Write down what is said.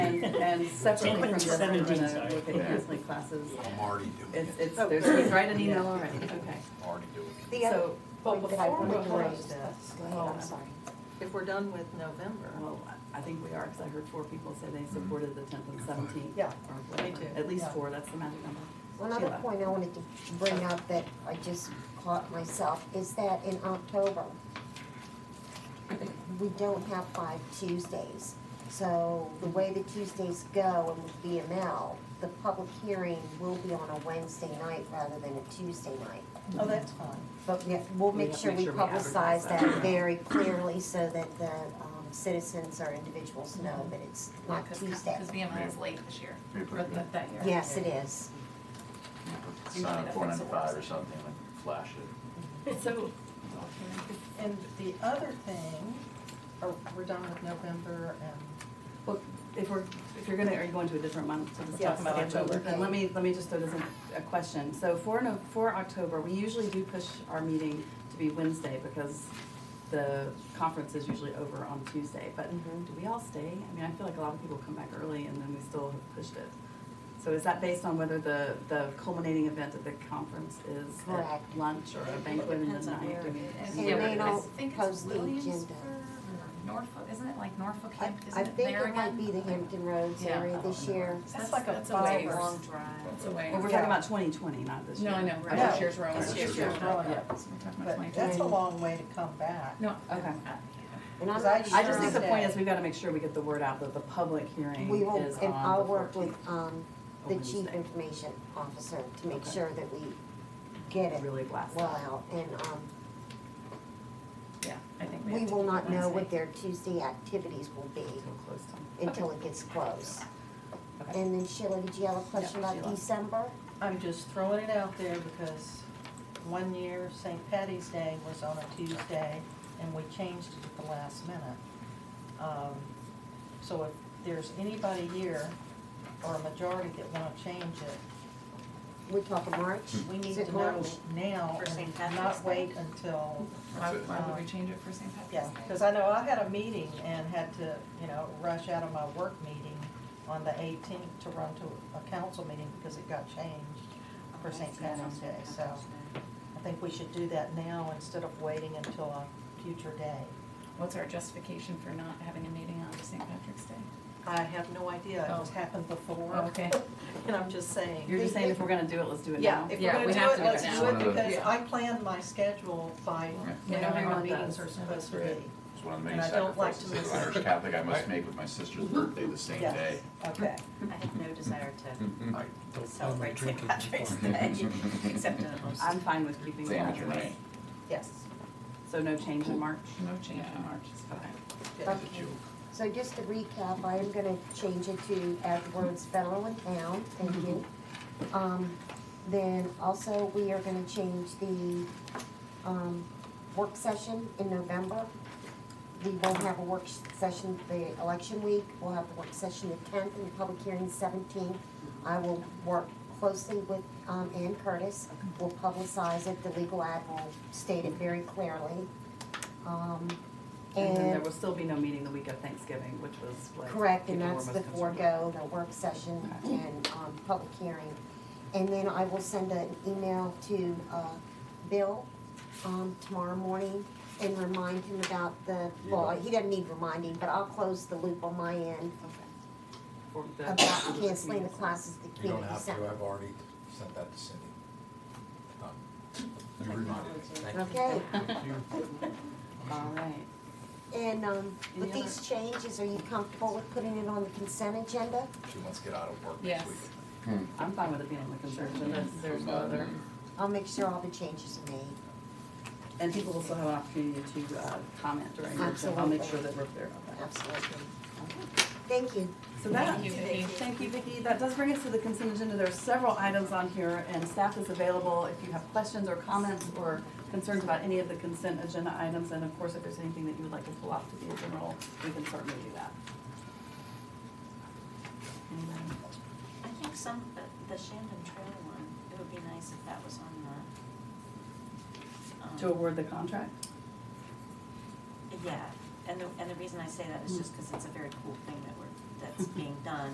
and separately from this, we're Seventeen, gonna sorry. look at counseling classes. I'm already doing It's, it, Oh. Oh. it's, there's, he's writing an email already, okay. I'm already doing it. The other So, But point that I before we wanted to close raise. this, Oh, I'm sorry. if we're done with November, well, I I think we are, because I heard four people say they supported the tenth and seventeenth. Yeah. Or whatever, too, at least yeah. four, that's the magic number. One other Sheila. point I wanted to bring up that I just caught myself is that in October, we don't have five Tuesdays. So the way the Tuesdays go in the VML, the public hearing will be on a Wednesday night rather than a Tuesday night. mm-hmm. Oh, that's fine. But we- we'll We make have to sure make we sure we advertise publicize that. that very clearly so that the um, citizens or individuals know that it's not Tuesday. Because BMI is late this year, Maybe or put it that, that year. Yes, it is. you know, put the sign up four ninety-five or something, and flash it. So, and the other thing, or we're done with November and. Well, if we're, if you're gonna, are you going to a different month to just talk Yes, about October? October. Then let me, let me just throw this in a question. So for, no, for October, we usually do push our meeting to be Wednesday because the conference is usually over on Tuesday. But do we all stay? I mean, I feel like a lot of people come back early and then we still have pushed it. So is that based on whether the, the culminating event at the conference is at Correct. lunch or a banquet in the night? Depends on where Do it we- is. And Yeah, they but I don't think it's post the Williamsburg agenda. or Norfolk, isn't it like Norfolk, I, Hamp- I isn't it think there it might be again? the Hampton Roads Yeah. area this year. That's That's like a that's five way long hour- drive. That's a way. Well, we're talking about twenty twenty, not this year. No, I know, Okay. right, this year's Rowan. This year's Yeah, Rowan. yeah. We're talking about But 20. that's a long way to come back. No. Okay. uh, And I'm Because I not just I just think the sure point is we've got to make sure we get the word out that the public hearing We will, is and on I'll the work with, fourteenth. um, the chief Wednesday. information officer to make Okay. sure that we get it Really blast well out. out. And, um, Yeah, I think we we have to will do not know Wednesday. what their Tuesday activities will be Until close time. until it gets close. Okay. And then Sheila, did you have a question Yeah, about Sheila. December? I'm just throwing it out there because one year St. Patty's Day was on a Tuesday and we changed it at the last minute. Um, So if there's anybody here or a majority that wanna change it, We're talking March? Hmm. we need Is it to know March? now For St. and not Patrick's Day? wait until, Why, That's it. why would we change it for St. Patrick's Day? yeah. Cause I know I had a meeting and had to, you know, rush out of my work meeting on the eighteenth to run to a council meeting because it got changed for St. Patty's Day, so. I think we should do that now instead of waiting until a future day. What's our justification for not having a meeting on St. Patrick's Day? I have no idea, it just Oh. happened before. Okay. And I'm just saying. You're just saying if we're gonna do it, let's do it Yeah, now? if Yeah, we're gonna we do have it, to do it let's now. do it One of the- because Yeah. I plan my schedule by Yeah. when Yeah, our everyone meetings does. are supposed to Right. be. It's one of the many And I don't like to sacrifices as miss an it. Irish Catholic I must make with my sister's birthday the same Yes, day. Okay, I have no desire Mhm. I- to celebrate St. Patrick's Day, except in a host. I'm fine with keeping It's it amateur night. that. yes. So no change in March? No change Yeah. in March. Okay. good. It's a joke. So just to recap, I am gonna change it to add the words federal and town, thank you. Mm-hmm. Um, then also, we are gonna change the, um, work session in November. We won't have a work session the election week, we'll have the work session the tenth and the public hearing seventeenth. I will work closely with, um, Ann Curtis, we'll publicize it, the legal ad will state it very clearly. Um, And then there will still be no meeting the week of Thanksgiving, which was what Correct, and people were that's the most concerned about. forego, the work session and, um, public hearing. And then I will send an email to, uh, Bill, um, tomorrow morning and remind him about the, well, he doesn't need reminding, but I'll close the loop on my end For the- about canceling the classes at the You don't community have to, center. I've already sent that to Cindy. Done. You reminded me, thank you. Okay, All right. and, um, with Any other- these changes, are you comfortable with putting it on the consent agenda? She wants to get out of work Yes. next week. Hmm. I'm fine with it being on the conservative, that's, there's no other, I'll make sure all the changes are made. and people will still have an opportunity to, uh, comment during, it, so I'll make sure that we're clear about that. Absolutely. Thank you. So that, Thank you, Vicki. thank you, Vicki. That does bring us to the consent agenda. There are several items on here, and staff is available if you have questions or comments or concerns about any of the consent agenda items. And of course, if there's anything that you would like to pull off to be a general, we can certainly do that. Anyway, I think some, but the Shandon Trail one, it would be nice if that was on the. To um, award the contract? Yeah, and the, and the reason I say that is just because it's a very cool thing that we're, that's being done.